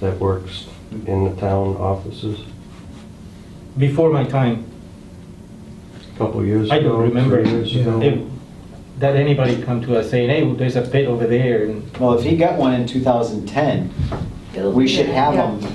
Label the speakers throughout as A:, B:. A: that works in the town offices
B: Before my time,
A: a couple of years ago.
B: I don't remember
A: three years ago.
B: if, that anybody come to us saying, hey, there's a pit over there and
C: Well, if he got one in 2010, we should have
D: Yeah.
C: them
D: Yeah,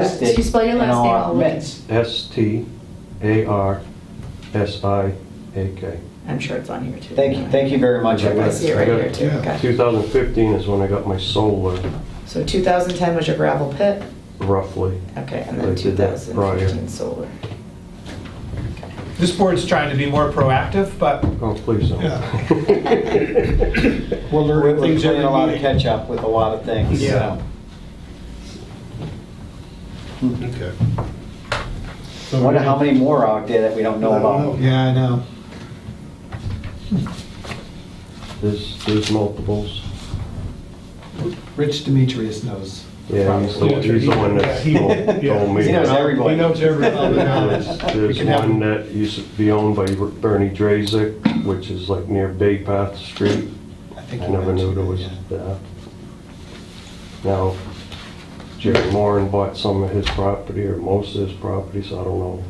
C: listed.
D: if you spell your
C: in
D: last
C: all
D: name,
C: our
D: I'll look.
C: minutes.
A: S-T-A-R-S-I-A-K.
D: I'm sure it's on here too.
C: Thank you, thank you very much. I
D: I
C: got
D: see it
C: it.
D: right here too,
E: Yeah.
D: okay.
A: 2015 is when I got my solar,
D: So 2010 was your gravel pit,
A: roughly.
D: okay, and
A: I
D: then
A: did that prior.
D: 2015 solar.
E: This board's trying to be more proactive, but
A: Oh, please don't.
E: we're
C: We're
E: learning
C: we're
E: things
C: playing
E: every
C: a lot of
E: meeting.
C: catch-up with a lot of things,
E: Yeah.
C: so.
E: Okay.
C: I Wonder how many more are out there that we don't know
E: I don't
C: about.
E: know. Yeah, I know.
A: There's, there's multiples.
F: Rich Demetrius knows.
A: Yeah, he's the one- he's the one that
E: Yeah,
A: told
E: he-
A: told me.
C: He knows
A: that.
C: everybody.
E: He knows everybody.
A: There's
E: We
A: there's
E: can have-
A: one that used to be owned by Bernie Drazek, which is like near Bay Path Street.
F: I think
A: I
F: you
A: never knew
F: mentioned
A: there
F: it,
A: was
F: yeah.
A: that. Now, Jerry Moran bought some of his property, or most of his property, so I don't know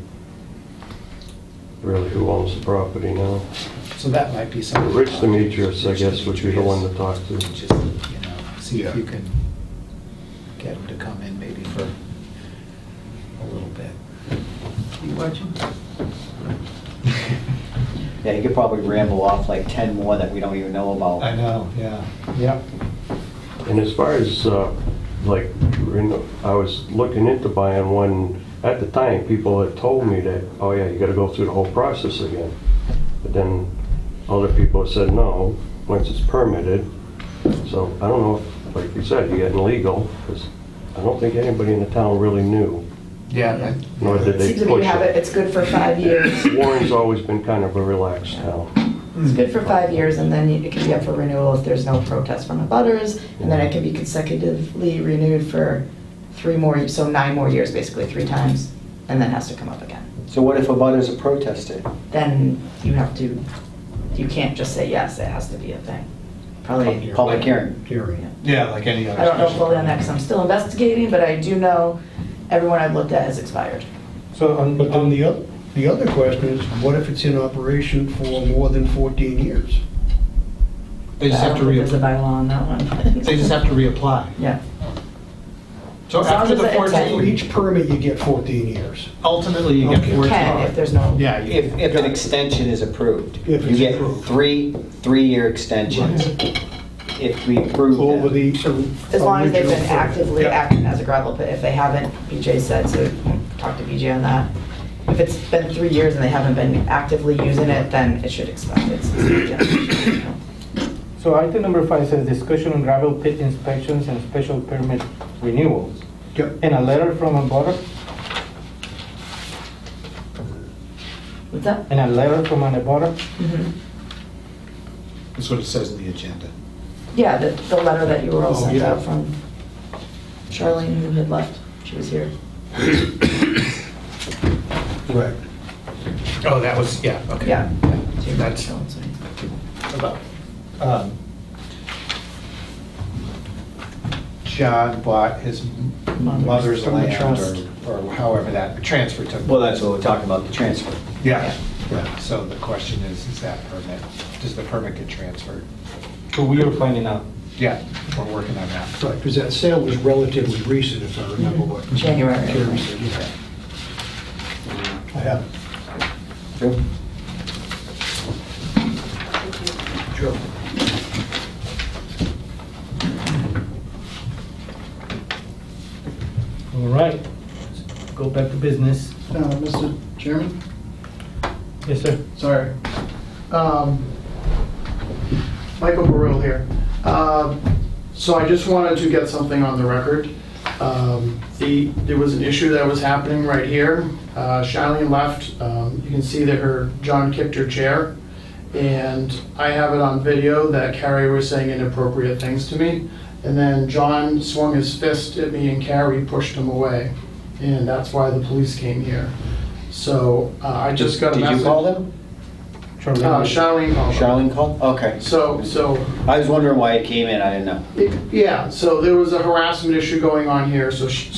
A: really who owns the property now.
F: So that might be
A: But
F: something. to
A: Rich
F: talk to
A: Demetrius, I
F: Rich
A: guess, would be the one
F: Demetrius.
A: to talk to.
F: Just, you know, see if
E: Yeah.
F: you can get him to come in maybe for a little bit. You watching?
C: Yeah, he could probably ramble off like 10 more that we don't even know about.
F: I know, yeah, yep.
A: And as far as, uh, like, you know, I was looking into buying one, at the time, people had told me that, oh yeah, you gotta go through the whole process again. But then other people have said, no, once it's permitted. So I don't know, if, like you said, you getting legal, because I don't think anybody in the town really knew,
E: Yeah.
A: nor did they
D: Seems that we
A: push
D: have it,
A: it.
D: it's good for five years.
A: Warren's always been kind of a relaxed town.
D: It's good for five years, and then it can be up for renewal if there's no protest from the butters, and then it can be consecutively renewed for three more, so nine more years, basically, three times, and then has to come up again.
C: So what if a butters a protester?
D: Then you have to, you can't just say yes, it has to be a thing. Probably.
C: Public hearing.
D: Yeah.
F: Hearing. Yeah, like any other.
D: I don't know
F: special
D: fully on that,
F: permit.
D: because I'm still investigating, but I do know everyone I've looked at has expired.
B: So on,
G: But then
B: on
G: the other, the other question is, what if it's in operation for more than 14 years?
F: They just have to
D: I don't think There's a
F: reapply,
D: bylaw on that one.
F: they just have to reapply.
D: Yeah,
F: So
D: As long
F: after
D: as
F: the
D: it's a
G: So
F: 14,
D: ten.
G: each permit, you get 14 years.
F: ultimately you get
G: Okay.
F: 14.
D: can, if there's no.
F: Yeah. you-
C: If, if an extension is approved.
G: If it's
C: You get
G: approved.
C: three, three-year extensions if we approve them.
G: Over the or-
D: As long as they've been
G: original-
D: actively
G: Yeah.
D: acting as a gravel pit, if they haven't, BJ said, so talk to BJ on that. If it's been three years and they haven't been actively using it, then it should expire. It's- it's-
B: So item number five says discussion on gravel pit inspections and special permit renewals.
G: Yep.
B: And a letter from a butter,
D: What's that?
B: and a letter from an abutter.
D: Mhm.
F: That's what it says in the agenda.
D: Yeah, the, the letter that you were all
F: Oh,
D: sent
F: yeah.
D: out from Charlene, who had left. She was here.
G: Right.
F: Oh, that was, yeah, okay.
D: Yeah.
F: That's- about, um, John bought his
D: Mother's
F: mother's
D: from the
F: land
D: trust.
F: or, or however that transfer took.
C: Well, that's what we're talking about, the transfer.
F: Yeah, yeah, so the question is, is that permit, does the permit get transferred?
B: So we are finding out.
F: Yeah, we're working on that.
G: Right, because that sale was relatively recent, if I remember what.
D: January.
G: Jerry said, yeah. I have it.
C: True.
G: Sure.
B: All right, go back to business.
H: Uh, Mr. Chairman,
B: Yes, sir.
H: sorry. Um, Michael Burrell here. Uh, So I just wanted to get something on the record. Um, The, there was an issue that was happening right here. Uh, Charlene left, Um, you can see that her, John kicked her chair. And I have it on video that Carrie was saying inappropriate things to me. And then John swung his fist at me and Carrie pushed him away. And that's why the police came here. So uh, I just got a
C: Did
H: message.
C: you call them?
H: Uh, Charlene called.
C: Charlene called? Okay.
H: So, so
C: I was wondering why it came in, I didn't know.
H: It- Yeah, so there was a harassment issue going on here, so she,